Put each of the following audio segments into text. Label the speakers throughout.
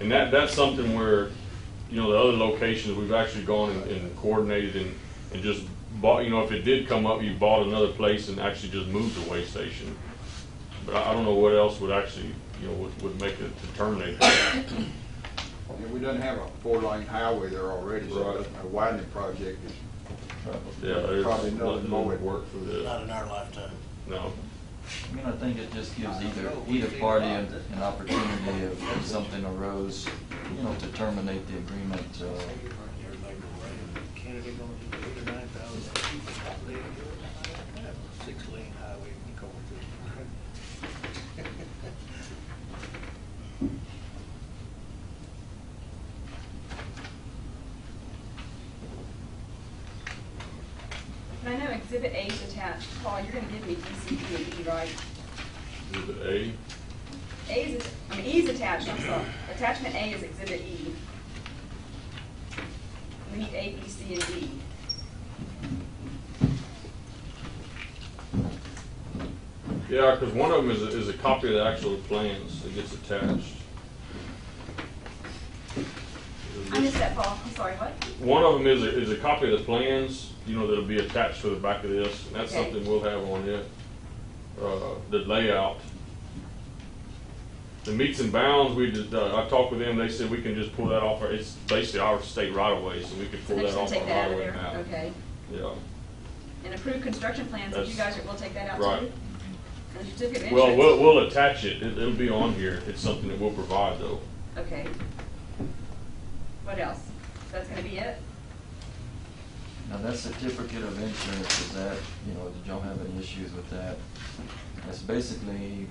Speaker 1: And that, that's something where, you know, the other locations, we've actually gone and- and coordinated and, and just bought, you know, if it did come up, you bought another place and actually just moved the weigh station. But I, I don't know what else would actually, you know, would, would make it to terminate that.
Speaker 2: And we don't have a four-lane highway there already, so
Speaker 1: Right.
Speaker 2: a widening project is
Speaker 1: Yeah, there's.
Speaker 2: probably nothing more at work for this.
Speaker 1: Yeah,
Speaker 3: Not in our lifetime.
Speaker 1: No.
Speaker 4: I mean, I think it just gives either, either party an an opportunity if if something arose, you know, to terminate the agreement. uh,
Speaker 3: Canada gonna do eighty-nine thousand people, six lane highway going through.
Speaker 5: I know exhibit A is attached, Paul, you're gonna give me E DCD, right?
Speaker 1: Is it A?
Speaker 5: A is, I mean, E is attached, I'm sorry, attachment A is exhibit E. We need A, B, C, and D.
Speaker 1: Yeah, because one of them is, a- is a copy of the actual plans that gets attached.
Speaker 5: I missed that, Paul, I'm sorry, what?
Speaker 1: One of them is a, is a copy of the plans, you know, that'll be attached to the back of this, and that's
Speaker 5: Okay.
Speaker 1: something we'll have on it. Uh, the layout. The meets and bounds, we did, uh, I talked with them, they said we can just pull that off, our- it's basically our state right of way, so we could
Speaker 5: So
Speaker 1: pull
Speaker 5: they're
Speaker 1: that
Speaker 5: just gonna
Speaker 1: off our
Speaker 5: take that
Speaker 1: right
Speaker 5: out
Speaker 1: of
Speaker 5: of
Speaker 1: way
Speaker 5: there,
Speaker 1: map.
Speaker 5: okay?
Speaker 1: Yeah,
Speaker 5: And approved construction plans, if you
Speaker 1: That's-
Speaker 5: guys will take that out too?
Speaker 1: right.
Speaker 5: And certificate of
Speaker 1: Well, we'll,
Speaker 5: insurance?
Speaker 1: we'll attach it, it, it'll be on here, it's something that we'll provide though.
Speaker 5: Okay. What else? That's gonna be it?
Speaker 4: Now, that certificate of insurance, is that, you know, did y'all have any issues with that? It's basically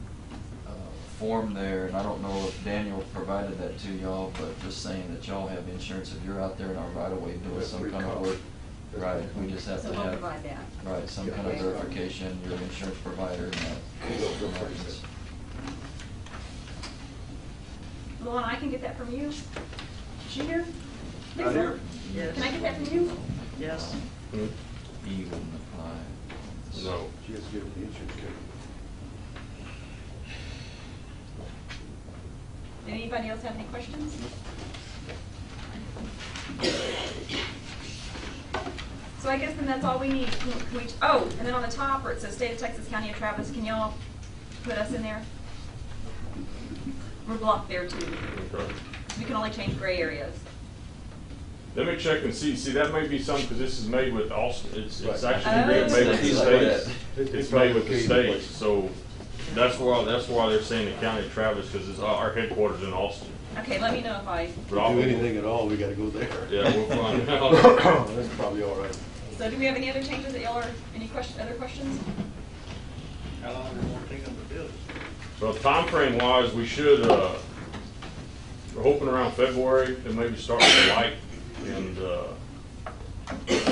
Speaker 4: uh, a form there, and I don't know if Daniel provided that to y'all, but just saying that y'all have insurance if you're out there in our right of way doing
Speaker 2: That's
Speaker 4: some
Speaker 2: pretty
Speaker 4: kind of
Speaker 2: common.
Speaker 4: work. Right, we just have
Speaker 5: So
Speaker 4: to
Speaker 5: we'll
Speaker 4: have,
Speaker 5: provide that.
Speaker 4: right, some kind of
Speaker 5: Okay.
Speaker 4: verification, your insurance provider and that.
Speaker 5: Luana, I can get that from you? Is she here?
Speaker 2: Not here.
Speaker 5: Lisa, Can I get that from you?
Speaker 6: Yes.
Speaker 5: Hmm.
Speaker 4: E wouldn't apply.
Speaker 1: No.
Speaker 2: She has to get the insurance company.
Speaker 5: Did anybody else have any questions? So I guess then that's all we need. Can can we, oh, and then on the top where it says State of Texas, County of Travis, can y'all put us in there? We're blocked there too.
Speaker 1: Okay.
Speaker 5: We can only change gray areas.
Speaker 1: Let me check and see, see, that may be something, because this is made with Austin, it's, it's
Speaker 2: Right.
Speaker 1: actually made
Speaker 5: Oh.
Speaker 1: made with the
Speaker 4: It's like
Speaker 1: states.
Speaker 2: that.
Speaker 1: It's made with the states, so that's why, that's why they're saying the county of Travis, because it's, our our headquarters in Austin.
Speaker 5: Okay, let me know if I,
Speaker 1: But
Speaker 7: If
Speaker 1: I'll-
Speaker 7: we do anything at all, we gotta go there.
Speaker 1: Yeah, we'll find out.
Speaker 7: That's probably all right.
Speaker 5: so do we have any other changes that y'all are, any question, other questions?
Speaker 3: How long does it gonna take them to build it?
Speaker 1: Well, timeframe wise, we should, uh, we're hoping around February, and maybe start with the light, and, uh,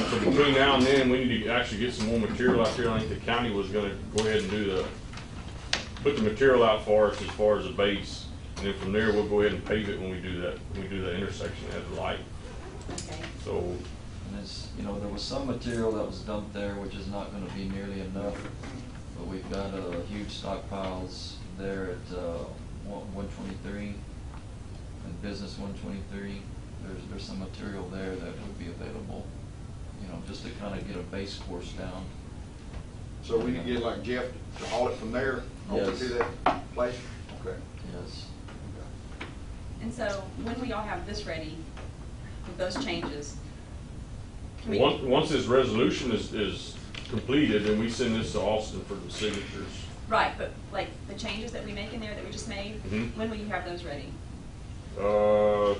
Speaker 1: so between now and then, we need to actually get some more material out there, I think the county was gonna go ahead and do the, put the material out for us as far as the base, and then from there, we'll go ahead and pave it when we do that, when we do the intersection at the light,
Speaker 5: Okay.
Speaker 1: so,
Speaker 4: And it's, you know, there was some material that was dumped there, which is not gonna be nearly enough, but we've got, uh, huge stockpiles there at, uh, one, one twenty-three, and business one twenty-three, there's, there's some material there that would be available, you know, just to kinda get a base course down.
Speaker 2: So we can get like Jeff to haul it from there, over
Speaker 4: Yes.
Speaker 2: to that place? Okay.
Speaker 4: Yes.
Speaker 5: And so when we all have this ready, with those changes? can we-
Speaker 1: once, once this resolution is, is completed, then we send this to Austin for the signatures.
Speaker 5: Right, but like the changes that we make in there that we just made,
Speaker 1: Mhm.
Speaker 5: when will you have those ready?
Speaker 1: Uh, let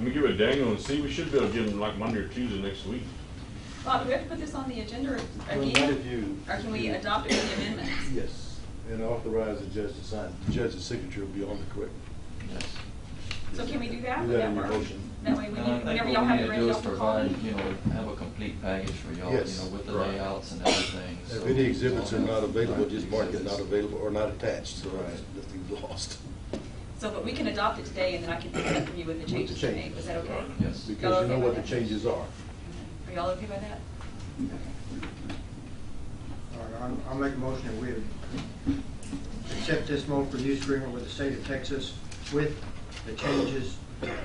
Speaker 1: me give it to Daniel and see. We should be able to give him like Monday or Tuesday next week.
Speaker 5: Bob, do we have to put this on the agenda
Speaker 7: Well,
Speaker 5: again?
Speaker 7: what if you-
Speaker 5: Or can we adopt it with the amendments?
Speaker 7: Yes, and authorize the judge to sign. The judge's signature will be on the correct.
Speaker 4: Yes.
Speaker 5: So can we do that?
Speaker 7: Do
Speaker 5: Would
Speaker 7: that in your
Speaker 5: work?
Speaker 7: motion.
Speaker 5: That way,
Speaker 4: And
Speaker 5: when
Speaker 4: I
Speaker 5: you-
Speaker 4: think
Speaker 5: whenever
Speaker 4: what
Speaker 5: y'all
Speaker 4: we
Speaker 5: have
Speaker 4: need
Speaker 5: it
Speaker 4: to
Speaker 5: ready,
Speaker 4: do is
Speaker 5: y'all can call me.
Speaker 4: provide, You know, have a complete package for y'all, you
Speaker 7: Yes.
Speaker 4: know, with the
Speaker 1: Right.
Speaker 4: layouts and everything.
Speaker 7: If
Speaker 4: so-
Speaker 7: any exhibits are not available,
Speaker 4: Right,
Speaker 7: just mark it not
Speaker 4: exhibits.
Speaker 7: available or not attached, so
Speaker 4: Right.
Speaker 7: nothing's lost.
Speaker 5: So, but we can adopt it today and then I can pick it up from you with the
Speaker 7: the
Speaker 5: changes we made.
Speaker 7: changes.
Speaker 5: Is that okay?
Speaker 4: Yes.
Speaker 5: Y'all
Speaker 7: Because you know
Speaker 5: okay
Speaker 7: what
Speaker 5: with
Speaker 7: the
Speaker 5: that?
Speaker 7: changes are.
Speaker 5: Are y'all okay by that?
Speaker 8: All right, I'm- I'll make a motion that we accept this multiple use agreement with the state of Texas with the changes